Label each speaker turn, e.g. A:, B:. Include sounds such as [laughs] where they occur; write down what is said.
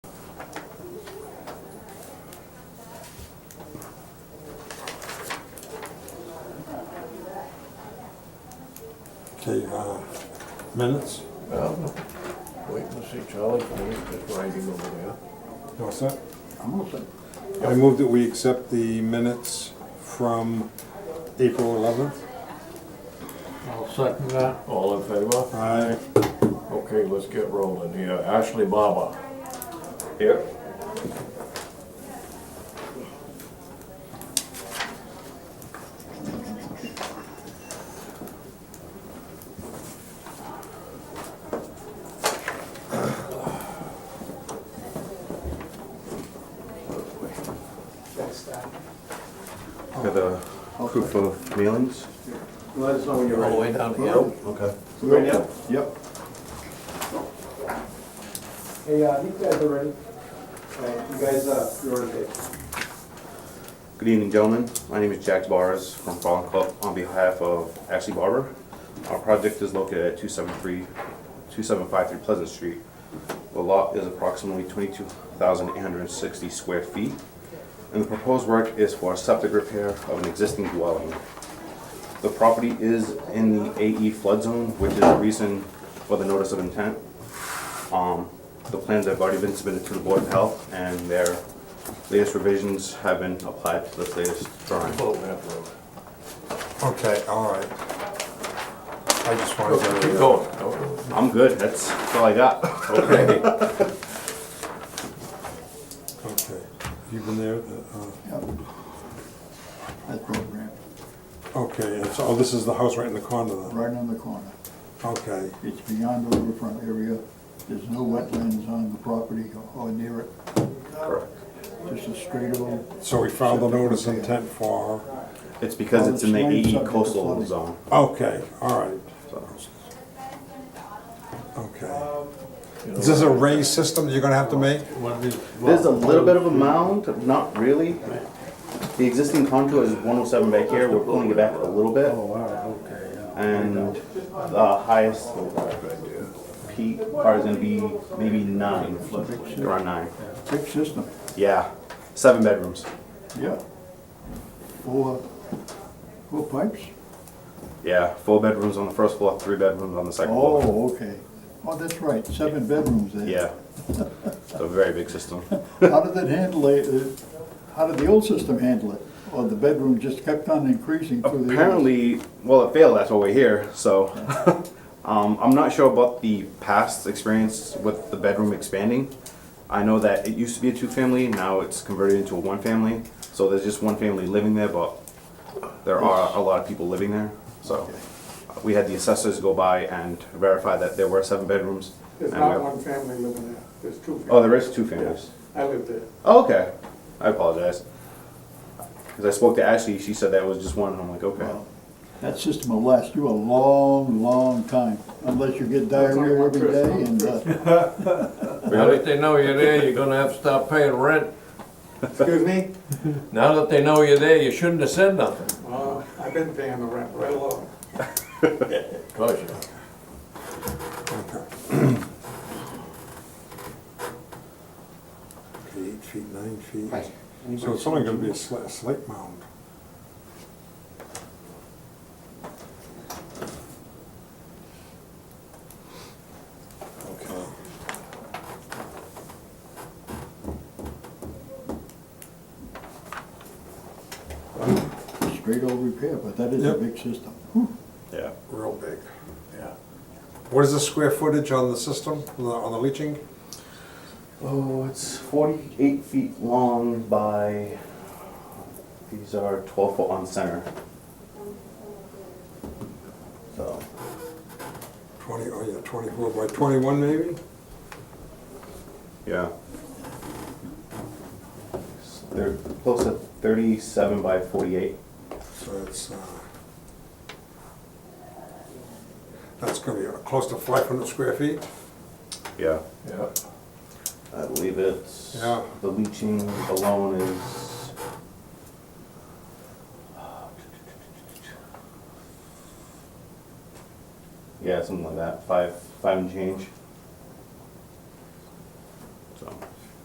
A: Okay, uh, minutes,
B: Well, wait and see Charlie finish his writing over there.
A: you all set?
B: I'm all set.
A: I move that we accept the minutes from April eleventh.
B: I'll second that. All in favor?
A: Aye.
B: Okay, let's get rolling here. Ashley Barber. Here.
C: Got a proof of mailings?
B: Let us know when you're ready. All the way down
C: Oh, Okay.
B: Right now?
C: Yep.
D: Hey, uh, you guys are ready? Alright, you guys, uh, you're on tape.
C: Good evening, gentlemen. My name is Jack Barres from Fallen Club on behalf of Ashley Barber. Our project is located at 273, 2753 Pleasant Street. The lot is approximately 22,860 square feet, and the proposed work is for septic repair of an existing dwelling. The property is in the AE flood zone, which is the reason for the notice of intent. Um, The plans have already been submitted to the Board of Health, and their latest revisions have been applied to the latest drawing.
A: Okay, all right. I just wanted
B: Keep
A: to,
B: going.
C: I'm good, that's all I got.
B: Okay.
A: okay, you've been there, uh,
E: That program,
A: okay, and so, oh, this is the house right in the corner then?
E: right on the corner.
A: Okay,
E: It's beyond the riverfront area. There's no wetlands on the property or near it,
C: Correct.
E: just a straight old.
A: so we filed the notice of intent for,
C: [laughs] It's because it's in the
E: Well, it's
C: AE
E: not
C: coastal
E: flooding.
C: zone,
A: okay, all right.
C: so.
A: Okay. Is this a raised system that you're gonna have to make?
C: There's a little bit of a mound, not really. The existing contour is one oh seven back here, we're pulling it back a little bit.
B: All right, Oh, okay, yeah.
C: And the highest peak part is gonna be maybe nine, around nine.
E: Brick system,
C: Yeah, seven bedrooms,
E: yeah. Four, four pipes?
C: yeah, four bedrooms on the first floor, three bedrooms on the second floor.
E: Oh, okay. Oh, that's right, seven bedrooms there.
C: Yeah, it's a very big system.
E: How did that handle it? Uh, How did the old system handle it? Or the bedroom just kept on increasing through the.
C: Apparently, well, it failed. That's why we're here. So, [laughs] um, I'm not sure about the past experience with the bedroom expanding. I know that it used to be a two-family. Now it's converted into a one-family. So there's just one family living there, but there are a lot of people living there. So, we had the assessors go by and verify that there were seven bedrooms.
F: There's
C: and
F: not
C: we-
F: one family living there, there's two families.
C: Oh, there is two families.
F: I lived there.
C: Oh, okay. I apologize. Because I spoke to Ashley, she said that was just one. and I'm like, okay.
E: Wow. That system will last you a long, long time, unless you get diarrhea every day and, uh,
B: Now that they know you're there, you're gonna have to stop paying rent.
F: Excuse me?
B: Now that they know you're there, you shouldn't have said nothing.
F: Uh, I've been paying the rent right along.
B: Cause you.
A: Okay. Okay, eight feet, nine feet. So it's only gonna be a slight, slight mound. Okay.
E: straight old repair, but that is a
A: Yep.
E: big system. Whew.
C: Yeah.
A: Real big.
B: Yeah.
A: What is the square footage on the system, on the- on the leaching?
C: Oh, it's forty-eight feet long by, these are twelve foot on center. So,
A: Twenty, oh yeah, twenty-four by twenty-one maybe?
C: yeah. They're close to thirty-seven by forty-eight.
A: So it's, uh, that's gonna be uh, close to five hundred square feet?
C: Yeah.
B: Yeah.
C: I believe it's,
A: Yeah.
C: the leaching alone is. Yeah, something like that, five, five and change.